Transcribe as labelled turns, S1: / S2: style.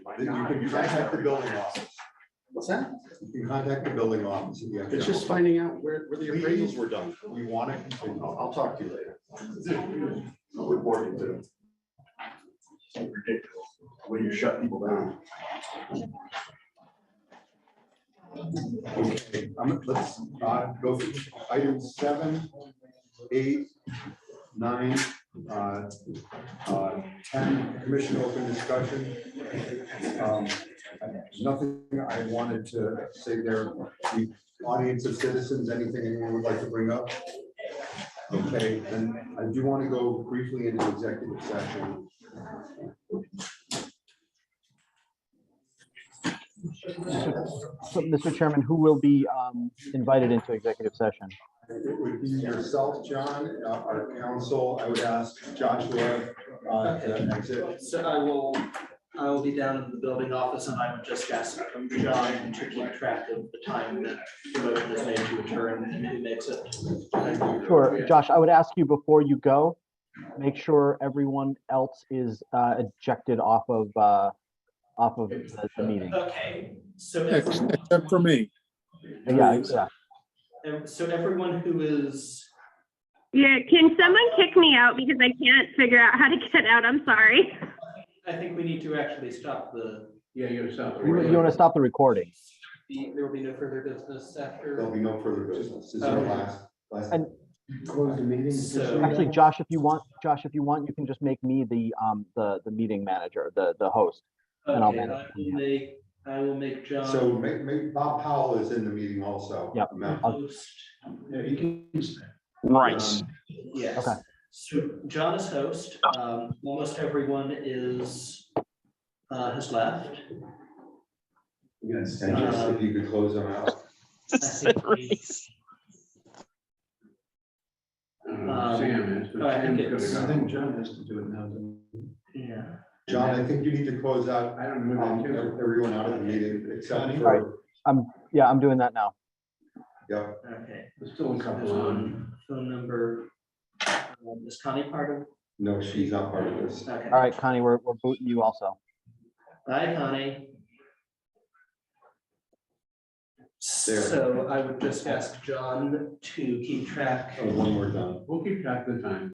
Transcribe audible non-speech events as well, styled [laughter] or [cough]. S1: You can contact the building office.
S2: What's that?
S1: You can contact the building office. if you have
S2: It's just
S1: trouble.
S2: finding out where, where the appraisals were done.
S1: We want to continue.
S2: I'll, I'll talk to you later.
S1: I'll report you to them.
S3: ridiculous, when you shut people down.
S1: Okay, um, let's uh, go through item seven, eight, nine, uh, uh, ten, commission open discussion. Um, Nothing I wanted to say there. The audience of citizens, anything anyone would like to bring up? Okay, and I do want to go briefly into executive session.
S4: So, Mr. Chairman, who will be um, invited into executive session?
S1: It would be yourself, John, uh, our counsel. I would ask Joshua uh, to exit.
S5: So I will, I will be down in the building office and I would just ask John to keep track of the time that the motion is made to adjourn and who makes it.
S4: Sure, Josh, I would ask you before you go, make sure everyone else is uh, ejected off of, uh, off of the the meeting.
S5: Okay, so.
S6: Ex-
S5: everyone-
S6: Except for me.
S4: Yeah, yeah.
S5: ev- So everyone who is,
S7: Yeah, can someone kick me out because I can't figure out how to get out? I'm sorry.
S5: I think we need to actually stop the,
S3: Yeah, you're south.
S4: You want to stop the recording.
S5: the- there will be no further business after.
S1: There'll be no further business. This is our last, last.
S4: And-
S1: Close the meeting.
S5: So-
S4: Actually,
S3: um,
S4: Josh, if you want, Josh, if you want, you can just make me the, um, the, the meeting manager, the, the host. And I'll
S5: Okay, I
S4: manage.
S5: will make, I will make John.
S1: So uh, make, make, Bob Powell is in the meeting also.
S4: Yep.
S1: Ma'am.
S5: Host,
S3: Yeah, he can stay.
S8: Right.
S5: yes.
S4: Okay.
S5: So John is host, um, almost everyone is, uh, has left.
S1: Yes, and just if you could close them out.
S5: [laughs]
S3: Uh, Sam is,
S5: Um, I
S3: but Sam's
S5: think it's-
S3: gonna go. I think John has to do it now.
S5: Yeah.
S1: John, I think you need to close out
S3: I don't know.
S1: um,
S3: if they do.
S1: everyone out of the meeting except
S4: Right.
S1: for,
S4: Yeah, I'm doing that now.
S1: yeah,
S5: Okay.
S3: There's still a
S5: There's
S3: couple on.
S5: one phone number. Um, Is Connie part
S1: no, she's not part of
S5: of?
S1: this.
S5: okay.
S4: All right, Connie, we're, we're booting you also.
S5: Bye, Connie. So I would just ask John to keep track
S1: Oh, One more done.
S3: We'll keep track of the time.